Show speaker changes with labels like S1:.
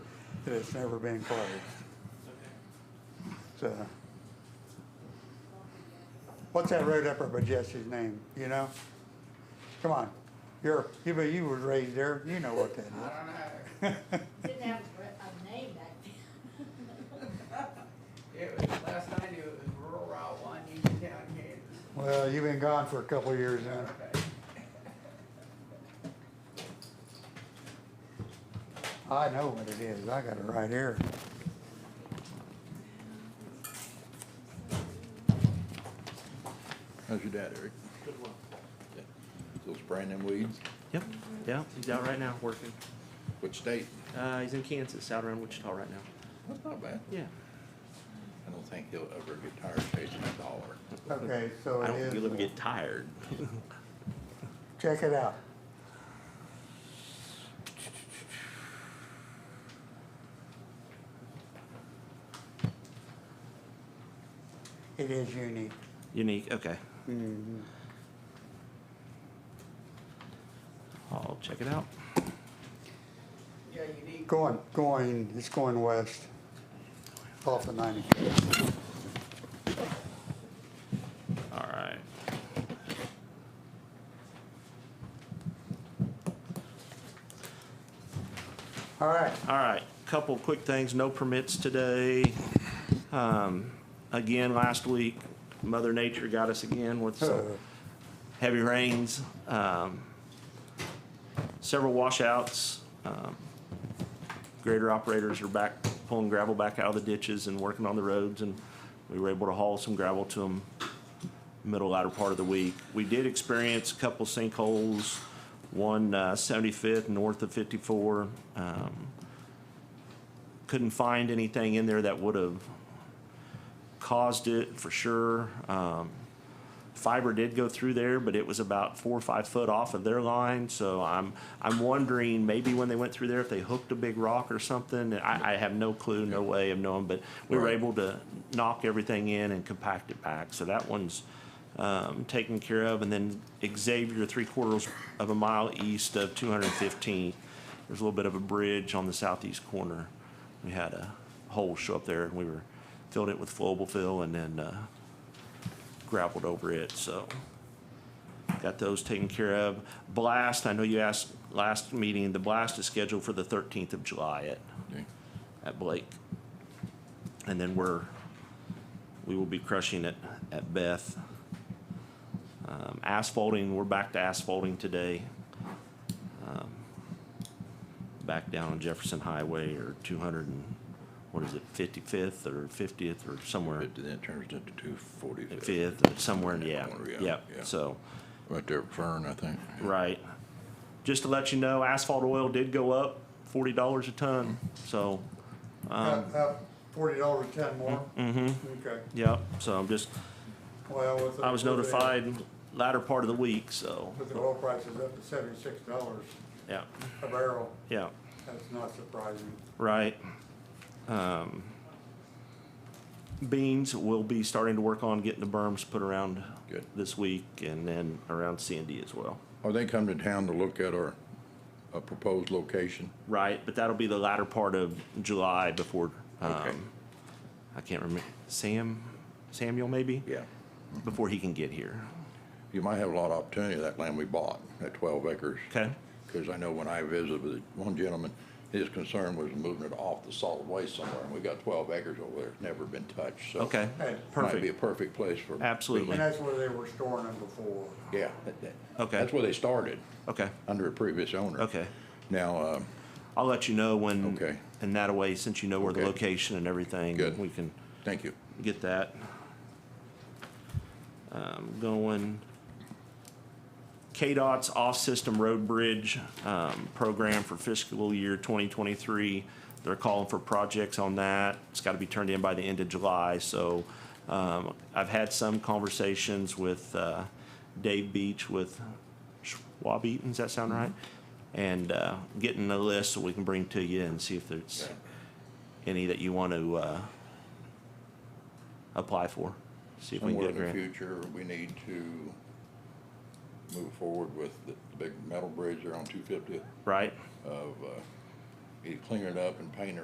S1: that it's never been closed. So. What's that road up there by Jesse's name, you know? Come on, you're, you, but you was raised there, you know what that is.
S2: I don't know.
S3: Didn't have a name back then.
S2: It was, last I knew, it was rural route one, Uniontown, Kansas.
S1: Well, you've been gone for a couple of years now.
S2: Okay.
S1: I know what it is. I got it right here.
S4: How's your dad, Eric? Good one. Still spraying them weeds?
S5: Yep, yeah, he's out right now working.
S4: Which state?
S5: Uh, he's in Kansas, out around Wichita right now.
S4: That's not bad.
S5: Yeah.
S4: I don't think he'll ever get tired of chasing a dollar.
S1: Okay, so
S5: I
S1: it
S5: don't think he'll ever
S1: is, uh,
S5: get tired.
S1: check it out. It is unique.
S5: Unique, okay. Mm-hmm. I'll check it out.
S2: Yeah, you need.
S1: Going, going, it's going west off the ninety.
S5: All right.
S1: All right,
S5: All right, couple quick things, no permits today. Um, again, last week, Mother Nature got us again with
S1: uh,
S5: some heavy rains, um, several washouts. Um, grader operators are back pulling gravel back out of the ditches and working on the roads, and we were able to haul some gravel to them middle latter part of the week. We did experience a couple sinkholes, one uh, 75th north of 54. Um, couldn't find anything in there that would have caused it for sure. Um, fiber did go through there, but it was about four or five foot off of their line. So I'm I'm wondering maybe when they went through there if they hooked a big rock or something. I, I have no clue, no way of knowing. But we were
S4: Right.
S5: able to knock everything in and compact it back. So that one's um, taken care of. And then Xavier, three quarters of a mile east of 215. There's a little bit of a bridge on the southeast corner. We had a hole show up there, and we were filled it with flowable fill, and then. Uh, gravelled over it, so got those taken care of. Blast, I know you asked last meeting, the blast is scheduled for the thirteenth of July at,
S4: Yeah.
S5: at Blake. And then we're, we will be crushing it at Beth. Um, asphalting, we're back to asphalting today. Um, Back down on Jefferson Highway or two hundred and, what is it, fifty-fifth or fiftieth or somewhere
S4: Fifty, then it turns into two forty.
S5: fifth, or somewhere, in- yeah,
S4: Yeah,
S5: yeah,
S4: yeah.
S5: so,
S4: Right there at Fern, I think.
S5: right. Just to let you know, asphalt oil did go up forty dollars a ton, so, um,
S1: up, up uh, forty dollars a ton more.
S5: mhm,
S1: Okay,
S5: yep, so I'm just,
S1: well, with. the-
S5: I was
S1: with the-
S5: notified latter part of the week, so,
S1: With the oil prices up to seventy-six dollars
S5: yeah,
S1: a barrel,
S5: yeah,
S1: that's not surprising.
S5: right. Um, Beans, we'll be starting to work on getting the berms put around
S4: Good.
S5: this week, and then around Sandy as well.
S4: Are they coming to town to look at our, uh proposed location?
S5: Right, but that'll be the latter part of July before,
S4: Okay.
S5: um, I can't remember, Sam, Samuel maybe?
S4: Yeah.
S5: Before he can get here.
S4: You might have a lot of opportunity of that land we bought, that twelve acres.
S5: Okay,
S4: Because I know when I visited with one gentleman, his concern was moving it off the solid waste somewhere, and we got twelve acres over there, it's never been touched, so.
S5: okay,
S1: Hey,
S4: Might be a
S5: perfect,
S4: perfect place for.
S5: absolutely,
S1: And that's where they were storing them before.
S4: Yeah. that- that-
S5: Okay.
S4: That's where they started,
S5: okay,
S4: under a previous owner.
S5: okay.
S4: Now, uh,
S5: I'll let you know when,
S4: Okay.
S5: and that way, since you know where the
S4: Okay.
S5: location and everything.
S4: Good.
S5: We can
S4: thank you.
S5: get that. Um, going. KDOT's off-system road bridge, um, program for fiscal year twenty twenty-three. They're calling for projects on that. It's gotta be turned in by the end of July, so, um, I've had some conversations with, uh, Dave Beach with Schwab Eaton, does that sound right? And, uh, getting a list so we can bring to you and see if there's any that you want to, uh, apply for. See if we can
S4: Somewhere
S5: get a
S4: in the
S5: grant.
S4: future, we need to move forward with the the big metal bridge there on two fifty
S5: Right?
S4: of, uh, either cleaning it up and painting it